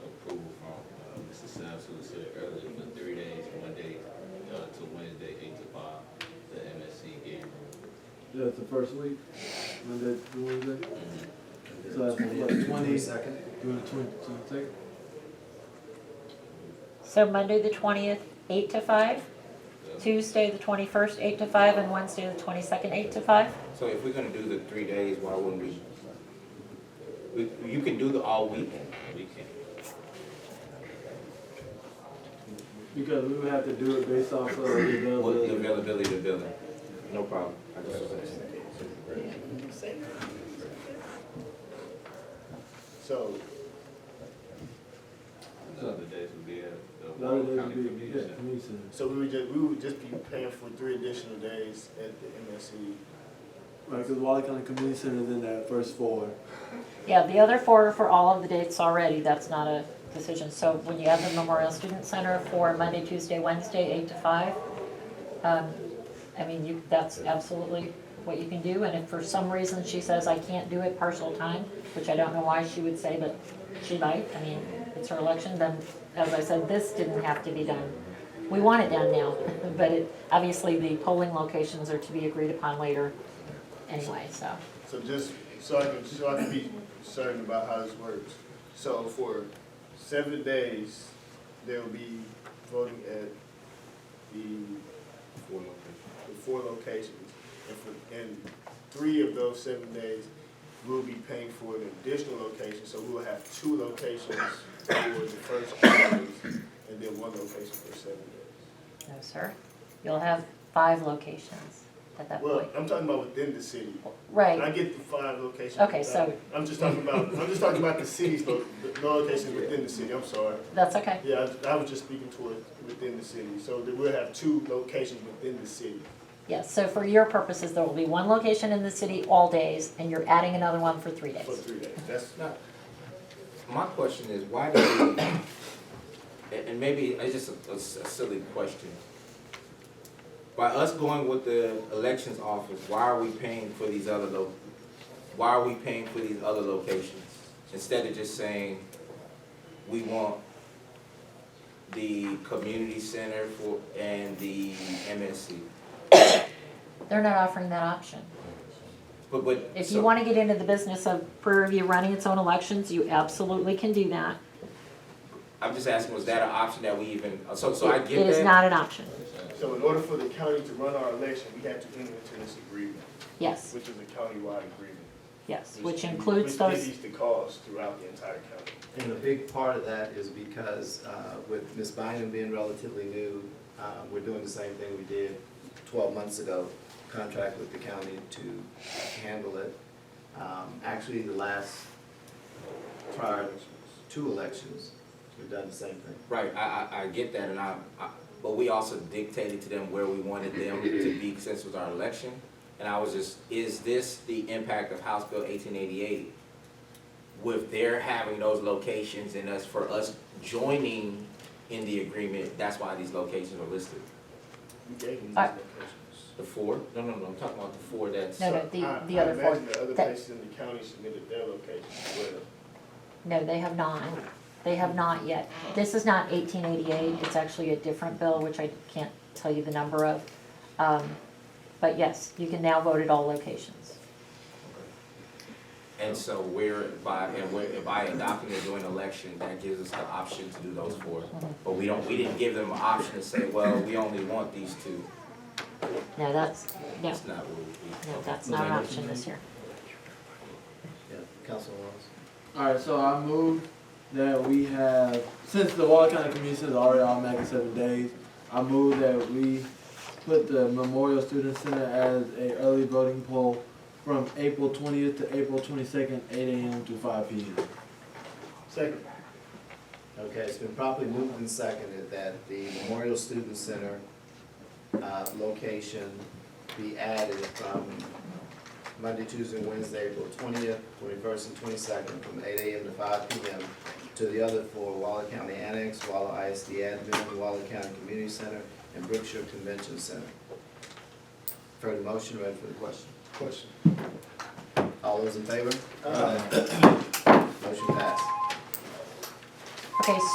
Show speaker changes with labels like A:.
A: uh, uh,
B: that's the first week, Monday, to Wednesday. So that's what, twenty, do
C: Second?
B: it twenty, so take,
D: So Monday, the twentieth, eight to five, Tuesday, the twenty-first, eight to five, and Wednesday, the twenty-second, eight to five?
E: So if we're gonna do the three days, why wouldn't we? we- You can do the all week. We can.
B: because we would have to do it based off of the
E: With the
B: availability.
E: availability of the building. No problem. I just-
F: So,
A: The other days would be at the
B: The other
A: Warren
B: days
A: County
B: would be,
A: Community
B: yeah,
A: Center.
B: community center.
F: so we would just, we would just be paying for three additional days at the MSC.
B: Right, because Wally County Community Center is in that first four.
D: Yeah, the other four are for all of the dates already, that's not a decision. So when you add the Memorial Student Center for Monday, Tuesday, Wednesday, eight to five, um, I mean, you, that's absolutely what you can do. And if for some reason she says, I can't do it partial time, which I don't know why she would say, but she might, I mean, it's her election, then, as I said, this didn't have to be done. We want it done now, but it, obviously, the polling locations are to be agreed upon later anyway, so.
F: So just, so I can, so I can be certain about how this works. So for seven days, they'll be voting at the,
E: Four locations.
F: the four locations. And for, and three of those seven days, we'll be paying for an additional location, so we'll have two locations for the first two days, and then one location for seven days.
D: No, sir. You'll have five locations at that
F: Well,
D: point.
F: I'm talking about within the city. I
D: Right,
F: get the five locations.
D: Okay, so-
F: I'm just talking about, I'm just talking about the cities, lo- the locations within the city, I'm sorry.
D: that's okay.
F: Yeah, I I was just speaking toward within the city, so that we'll have two locations within the city.
D: Yes, so for your purposes, there will be one location in the city all days, and you're adding another one for three
F: For
D: days.
F: three days, that's,
E: Now, my question is, why do we, and- and maybe it's just a- a s- a silly question. By us going with the elections office, why are we paying for these other lo, why are we paying for these other locations? Instead of just saying, we want the community center for, and the MSC.
D: They're not offering that option.
E: But, but.
D: If
E: so-
D: you want to get into the business of Prairie View running its own elections, you absolutely can do that.
E: I'm just asking, was that an option that we even, uh, so, so I get that?
D: It is not an option,
F: so in order for the county to run our election, we have to enter into this agreement,
D: yes,
F: which is a countywide agreement.
D: yes, which includes those,
F: Which divvies the cost throughout the entire county.
C: And a big part of that is because uh, with Ms. Bynum being relatively new, uh, we're doing the same thing we did 12 months ago, contract with the county to handle it. Um, Actually, the last, prior two elections, we've done the same thing.
E: Right, I, I, I get that, and I, I, but we also dictated to them where we wanted them to be since it was our election. And I was just, is this the impact of House Bill eighteen eighty-eight? With their having those locations and us, for us joining in the agreement, that's why these locations are listed.
F: We gave them these
D: Alright.
F: locations.
E: The four? No, no, no, I'm talking about the four that's,
D: No, no,
F: So
D: the-
F: I-
D: the other
F: I
D: four.
F: imagine the other
D: That-
F: places in the county submitted their locations as well.
D: no, they have not. They have not yet. This is not eighteen eighty-eight, it's actually a different bill, which I can't tell you the number of. Um, But yes, you can now vote at all locations.
E: and so we're, by, and we're, by adopting a joint election, that gives us the option to do those four. But we don't, we didn't give them an option to say, well, we only want these two.
D: No, that's, no,
E: That's not what we.
D: no, that's not an option this year.
C: Yeah, Councilman Wallace?
B: Alright, so I moved that we have, since the Wall County Community Center is already automatic seven days, I move that we put the Memorial Student Center as a early voting poll from April twentieth to April twenty-second, eight AM to five PM.
F: Second.
C: Okay, it's been properly moved and seconded that the Memorial Student Center uh, location be added from Monday, Tuesday, and Wednesday, April twentieth, twenty-first, and twenty-second, from eight AM to five PM, to the other four, Waller County Annex, Waller ISD Admin, Waller County Community Center, and Brookshire Convention Center. Heard the motion, ready for the question?
F: Question.
C: All those in favor? Motion passed.
D: Okay,